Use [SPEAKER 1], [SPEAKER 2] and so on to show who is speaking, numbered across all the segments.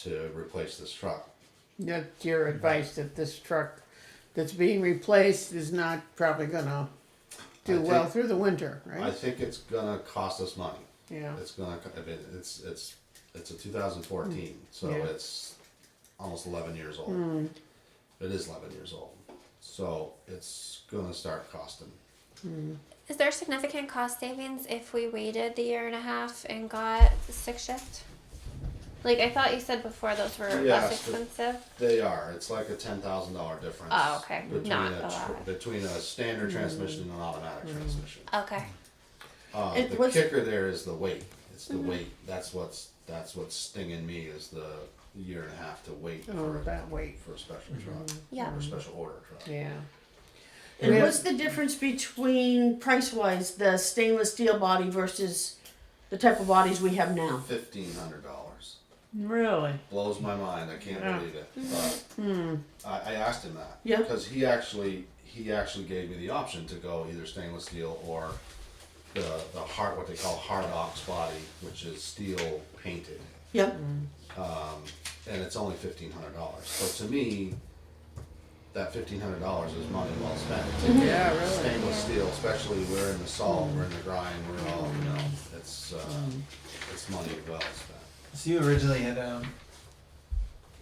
[SPEAKER 1] to replace this truck.
[SPEAKER 2] That's your advice that this truck that's being replaced is not probably gonna
[SPEAKER 1] I
[SPEAKER 2] do
[SPEAKER 1] think-
[SPEAKER 2] well through the winter,
[SPEAKER 1] I
[SPEAKER 2] right?
[SPEAKER 1] think it's gonna cost us money.
[SPEAKER 2] Yeah,
[SPEAKER 1] It's gonna, co- I mean, it's, it's, it's a two thousand fourteen, so
[SPEAKER 2] Mm. Yeah. Mm.
[SPEAKER 1] it's almost eleven years old. It is eleven years old, so it's gonna start costing.
[SPEAKER 3] Is there significant cost savings if we waited the year and a half and got the six shift? Like I thought you said before, those were less
[SPEAKER 1] Yes, but-
[SPEAKER 3] expensive.
[SPEAKER 1] They are, it's like a ten thousand dollar difference.
[SPEAKER 3] Oh, okay.
[SPEAKER 1] between
[SPEAKER 3] Not
[SPEAKER 1] a
[SPEAKER 3] a
[SPEAKER 1] tr-
[SPEAKER 3] lot.
[SPEAKER 1] Between a
[SPEAKER 2] Mm.
[SPEAKER 1] standard transmission and an automatic transmission.
[SPEAKER 3] Okay.
[SPEAKER 1] Uh,
[SPEAKER 4] It
[SPEAKER 1] the
[SPEAKER 4] was-
[SPEAKER 1] kicker there is the weight, it's
[SPEAKER 2] Mm-hmm.
[SPEAKER 1] the weight, that's what's, that's what's stinging me is the year and a half to wait
[SPEAKER 2] Oh,
[SPEAKER 1] for, a-
[SPEAKER 2] that weight.
[SPEAKER 1] for a special truck.
[SPEAKER 3] Yeah.
[SPEAKER 1] Or a special order truck.
[SPEAKER 2] Mm-hmm. yeah.
[SPEAKER 4] And
[SPEAKER 2] Yeah.
[SPEAKER 4] what's the difference between price wise the stainless steel body versus the type of bodies we have now?
[SPEAKER 1] Fifteen hundred dollars.
[SPEAKER 2] Really?
[SPEAKER 1] blows my mind. I can't
[SPEAKER 2] Yeah. Hmm.
[SPEAKER 1] believe it. But I, I asked him that.
[SPEAKER 4] Yeah.
[SPEAKER 1] Because he actually he actually gave me the option to go either stainless steel or the the hard what they call hard ox body, which is steel painted,
[SPEAKER 4] Yep.
[SPEAKER 1] and it's only fifteen hundred dollars. So to me, that fifteen hundred dollars is money well spent.
[SPEAKER 2] Yeah, really.
[SPEAKER 1] Stainless steel, especially we're in the salt, we're in the grind, we're all you know, it's uh,
[SPEAKER 2] Mm-hmm.
[SPEAKER 1] it's money well spent.
[SPEAKER 5] So you originally had um,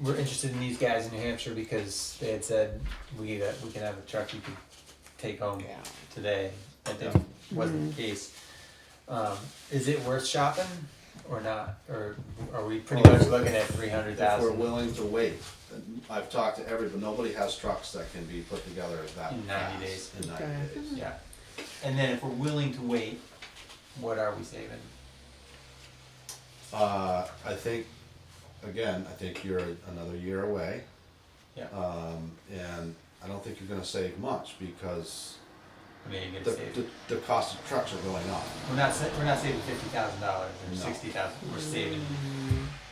[SPEAKER 5] were interested in these guys in New Hampshire because they had said we that we can have a truck you could take home
[SPEAKER 2] Yeah.
[SPEAKER 5] today. I think wasn't the case. Um, is it worth shopping or not? Or are we pretty
[SPEAKER 1] Well,
[SPEAKER 5] much looking at three hundred
[SPEAKER 1] If we're
[SPEAKER 5] thousand
[SPEAKER 1] willing to wait, I've talked to every, but nobody has trucks that can be put together that
[SPEAKER 5] In 90
[SPEAKER 1] fast.
[SPEAKER 5] days.
[SPEAKER 1] In ninety
[SPEAKER 2] Okay.
[SPEAKER 1] days.
[SPEAKER 5] Yeah. And then if we're willing to wait, what are we saving?
[SPEAKER 1] Uh, I think, again, I think you're another year away,
[SPEAKER 5] Yeah.
[SPEAKER 1] um, and I don't think you're gonna save much because
[SPEAKER 5] I mean, you're
[SPEAKER 1] the,
[SPEAKER 5] gonna save.
[SPEAKER 1] the, the cost of trucks are going up.
[SPEAKER 5] We're not sa- we're not saving fifty thousand dollars or
[SPEAKER 1] No.
[SPEAKER 5] sixty thousand. We're saving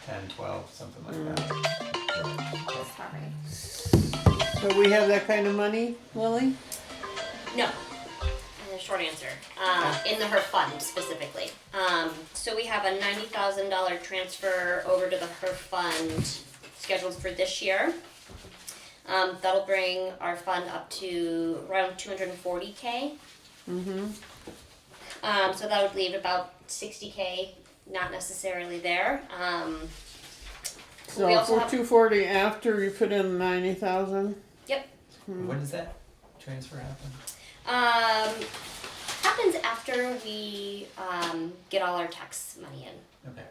[SPEAKER 5] ten, twelve, something like that.
[SPEAKER 3] Sorry.
[SPEAKER 2] So we have that kind of money, Lily?
[SPEAKER 6] No. And the short answer, uh, in the her fund specifically. Um, so we have a ninety thousand dollar transfer over to the her fund scheduled for this year. Um, that'll bring our fund up to around two hundred and forty K. Um, so that would leave about sixty K not necessarily there. Um, We
[SPEAKER 2] So
[SPEAKER 6] also
[SPEAKER 2] for
[SPEAKER 6] have-
[SPEAKER 2] two forty after you put in ninety thousand?
[SPEAKER 6] yep.
[SPEAKER 5] When does that transfer happen?
[SPEAKER 6] Um, happens after we um, get all our tax money in.
[SPEAKER 5] Okay.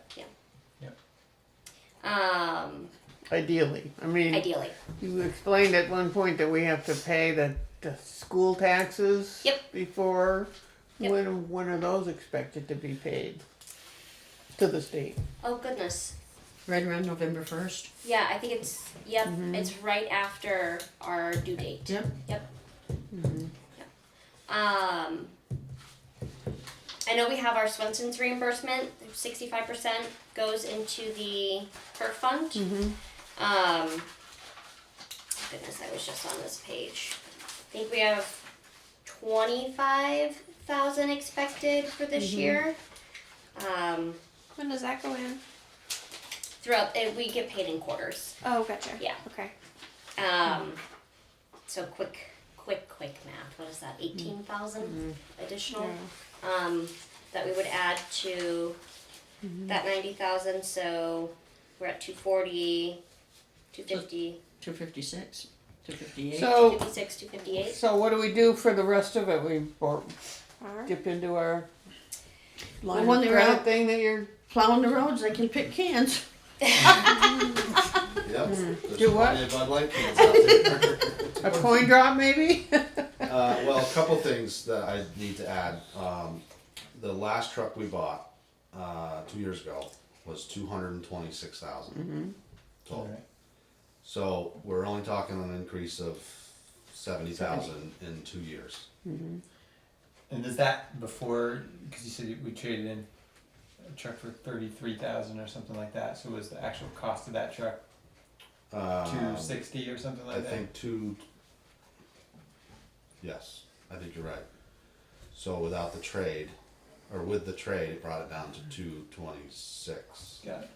[SPEAKER 6] Um,
[SPEAKER 2] Ideally, I mean,
[SPEAKER 6] ideally.
[SPEAKER 2] you explained at one point that we have to pay the, the school taxes.
[SPEAKER 6] Yep.
[SPEAKER 2] Before,
[SPEAKER 6] Yep.
[SPEAKER 2] when, when are those expected to be paid? To the state?
[SPEAKER 6] Oh goodness.
[SPEAKER 4] Right around November first.
[SPEAKER 6] Yeah, I think it's yep. It's right after our due date.
[SPEAKER 4] Yep.
[SPEAKER 6] Um, I know we have our Swenson's reimbursement. Sixty-five percent goes into the HER fund. Um, goodness, I was just on this page. I think we have twenty-five thousand expected for this year. Um,
[SPEAKER 3] When does that go in?
[SPEAKER 6] throughout, eh, we get paid in quarters.
[SPEAKER 3] Oh, gotcha.
[SPEAKER 6] Yeah.
[SPEAKER 3] Okay.
[SPEAKER 6] Um, so quick, quick, quick math. What is that? Eighteen thousand additional um, that we would add to that ninety thousand. So we're at 240, 250,
[SPEAKER 4] Two fifty six, two fifty
[SPEAKER 2] So,
[SPEAKER 6] 256, 258.
[SPEAKER 2] So what do we do for the rest of it? We bor-
[SPEAKER 3] All right.
[SPEAKER 2] dip into our
[SPEAKER 4] The
[SPEAKER 2] line
[SPEAKER 4] one
[SPEAKER 2] of
[SPEAKER 4] they
[SPEAKER 2] credit
[SPEAKER 4] wrote-
[SPEAKER 2] thing that you're
[SPEAKER 4] Plowing the roads, they can pick cans.
[SPEAKER 1] Yep. There's
[SPEAKER 2] Do what?
[SPEAKER 1] plenty of Bud Light cans out there.
[SPEAKER 2] a coin drop maybe.
[SPEAKER 1] Uh, well, a couple things that I need to add. Um, the last truck we bought, uh, two years ago was two hundred and twenty-six thousand total. So we're only talking an increase of seventy thousand in two years.
[SPEAKER 5] And is that before? Because you said you- we traded in a truck for thirty-three thousand or something like that. So was the actual cost of that truck
[SPEAKER 1] Um,
[SPEAKER 5] two sixty or something like
[SPEAKER 1] I
[SPEAKER 5] that?
[SPEAKER 1] think two. Yes, I think you're right. So without the trade, or with the trade, it brought it down to two twenty-six.
[SPEAKER 5] Got it.